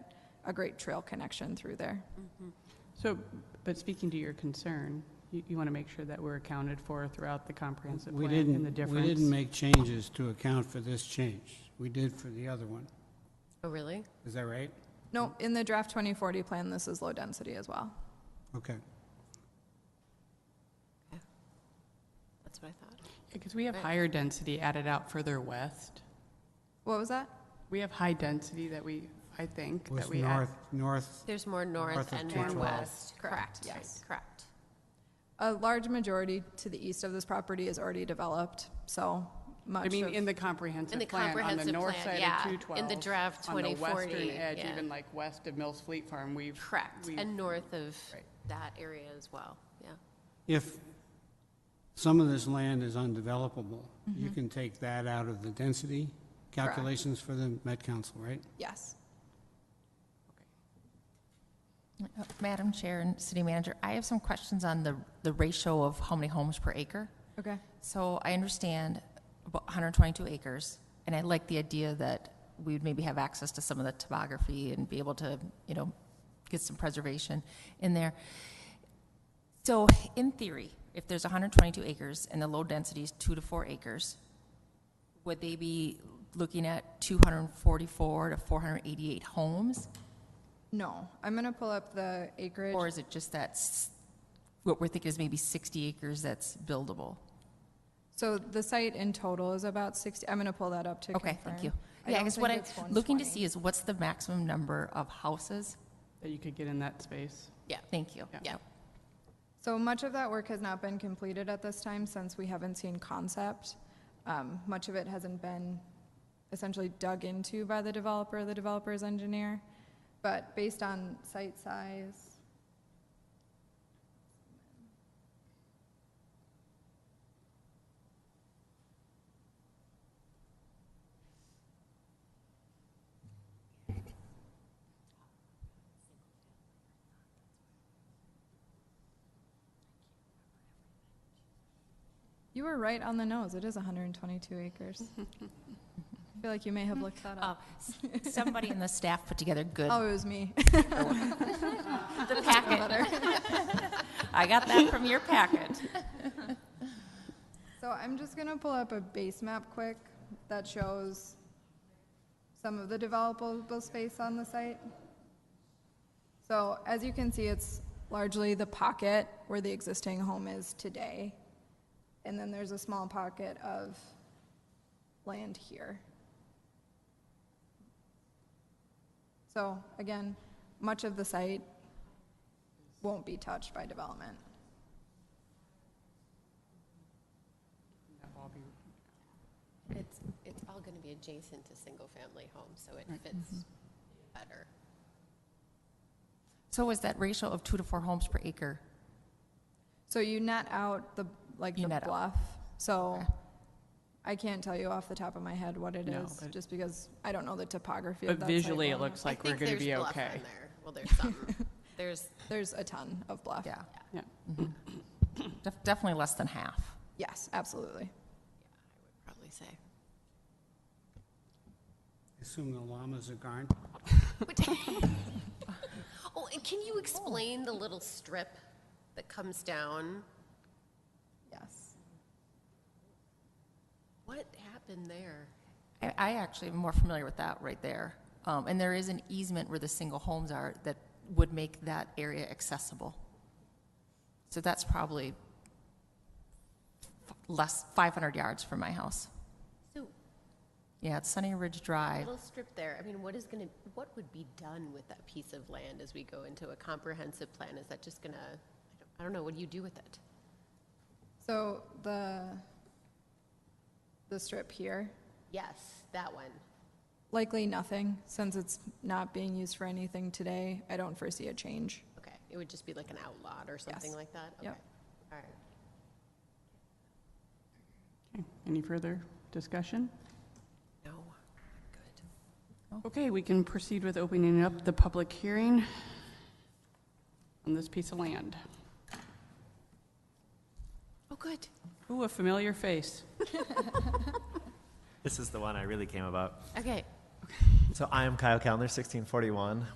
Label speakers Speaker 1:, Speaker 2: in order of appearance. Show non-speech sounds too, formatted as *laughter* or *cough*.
Speaker 1: a great trail connection through there.
Speaker 2: So, but speaking to your concern, you, you want to make sure that we're accounted for throughout the comprehensive
Speaker 3: We
Speaker 2: plan and the
Speaker 3: didn't, we
Speaker 2: difference.
Speaker 3: didn't make changes to account for this change. We did for the other one.
Speaker 4: Oh, really?
Speaker 3: Is that right?
Speaker 1: No, in the draft 2040 plan, this is low density as well.
Speaker 3: Okay.
Speaker 4: That's what I thought.
Speaker 2: Because we have higher density added out further west.
Speaker 1: What was that?
Speaker 2: We have high density that we, I think, that
Speaker 3: Was
Speaker 2: we add.
Speaker 3: north, north,
Speaker 4: There's more north
Speaker 3: North of
Speaker 4: and more
Speaker 3: 212.
Speaker 4: west.
Speaker 1: Correct,
Speaker 4: Right,
Speaker 1: yes.
Speaker 4: Correct.
Speaker 1: A large majority to the east of this property is already developed, so much
Speaker 2: I
Speaker 1: of.
Speaker 2: mean, in the comprehensive
Speaker 4: In the
Speaker 2: plan, on the
Speaker 4: comprehensive
Speaker 2: north
Speaker 4: plan,
Speaker 2: side
Speaker 4: yeah.
Speaker 2: of
Speaker 4: In the
Speaker 2: 212.
Speaker 4: draft
Speaker 2: On the
Speaker 4: 2040,
Speaker 2: western edge,
Speaker 4: yeah.
Speaker 2: even like west of Mills Fleet Farm, we've.
Speaker 4: Correct.
Speaker 2: we've-
Speaker 4: And north of
Speaker 2: Right.
Speaker 4: that area as well, yeah.
Speaker 3: if some of this land is undevelopable, you
Speaker 2: Mm-hmm.
Speaker 3: can take that out of the density calculations for the Met Council, right?
Speaker 1: Yes.
Speaker 5: Madam Chair and City Manager, I have some questions on the, the ratio of how many homes per acre.
Speaker 1: Okay.
Speaker 5: So I understand about 122 acres, and I like the idea that we would maybe have access to some of the topography and be able to, you know, get some preservation in there. So in theory, if there's 122 acres and the low density is two to four acres, would they be looking at 244 to 488 homes?
Speaker 1: No, I'm gonna pull up the acreage.
Speaker 5: Or is it just that, s- what we're thinking is maybe 60 acres that's buildable?
Speaker 1: So the site in total is about 60, I'm gonna pull that up to confirm.
Speaker 5: Okay, thank you.
Speaker 1: don't
Speaker 5: Yeah, I guess what
Speaker 1: think
Speaker 5: I'm
Speaker 1: it's
Speaker 5: looking to
Speaker 1: 120.
Speaker 5: see is what's the maximum number of houses?
Speaker 2: That you could get in that space.
Speaker 4: Yeah,
Speaker 5: Thank you.
Speaker 4: yeah.
Speaker 1: So much of that work has not been completed at this time since we haven't seen concept. Um, Much of it hasn't been essentially dug into by the developer, the developer's engineer. But based on site size, you were right on the nose, it is 122 acres. I feel like you may have looked that
Speaker 5: Uh,
Speaker 1: up.
Speaker 5: s- Somebody in the staff put together good,
Speaker 1: Oh, it was me.
Speaker 5: the packet. *laughs* I got that from your packet.
Speaker 1: So I'm just gonna pull up a base map quick that shows some of the developable space on the site. So as you can see, it's largely the pocket where the existing home is today. And then there's a small pocket of land here. So again, much of the site won't be touched by development.
Speaker 2: That will be-
Speaker 4: It's, it's all going to be adjacent to single-family homes, so it fits better.
Speaker 5: So is that ratio of two to four homes per acre?
Speaker 1: So you net out the, like
Speaker 5: You
Speaker 1: the
Speaker 5: net out.
Speaker 1: bluff, so
Speaker 5: Okay.
Speaker 1: I can't tell you off the top of my head what it
Speaker 2: No,
Speaker 1: is,
Speaker 2: but-
Speaker 1: just because I don't know the topography of
Speaker 2: But
Speaker 1: that site
Speaker 2: visually, it
Speaker 1: well enough.
Speaker 2: looks like we're going to be
Speaker 4: I think
Speaker 2: okay.
Speaker 4: there's bluff in there. Well, *laughs* there's some. There's,
Speaker 1: There's a ton of bluff.
Speaker 5: Yeah.
Speaker 2: Yeah.
Speaker 5: Mhm. Def- Definitely less than half.
Speaker 1: Yes, absolutely.
Speaker 4: probably say.
Speaker 3: Assume the llamas are gone.
Speaker 4: *laughs* Oh, and can you explain the little strip that comes down?
Speaker 1: Yes.
Speaker 4: What happened there?
Speaker 5: I, I actually am more familiar with that right there. Um, and there is an easement where the single homes are that would make that area accessible. So that's probably f- less, 500 yards from my house.
Speaker 4: So,
Speaker 5: Yeah, it's Sunny Ridge Drive.
Speaker 4: little strip there, I mean, what is going to, what would be done with that piece of land as we go into a comprehensive plan? Is that just going to, I don't know, what do you do with it?
Speaker 1: So the, the strip here,
Speaker 4: Yes, that one.
Speaker 1: likely nothing, since it's not being used for anything today, I don't foresee a change.
Speaker 4: Okay, it would just be like an outlot or something
Speaker 1: Yes.
Speaker 4: like that?
Speaker 1: Yep.
Speaker 4: Okay. All right.
Speaker 2: Okay. Any further discussion?
Speaker 4: No, good.
Speaker 2: Okay, we can proceed with opening up the public hearing on this piece of land.
Speaker 4: Oh, good.
Speaker 2: Ooh, a familiar face.
Speaker 6: This is the one I really came about.
Speaker 4: Okay.
Speaker 6: So I am Kyle Kellner, 1641,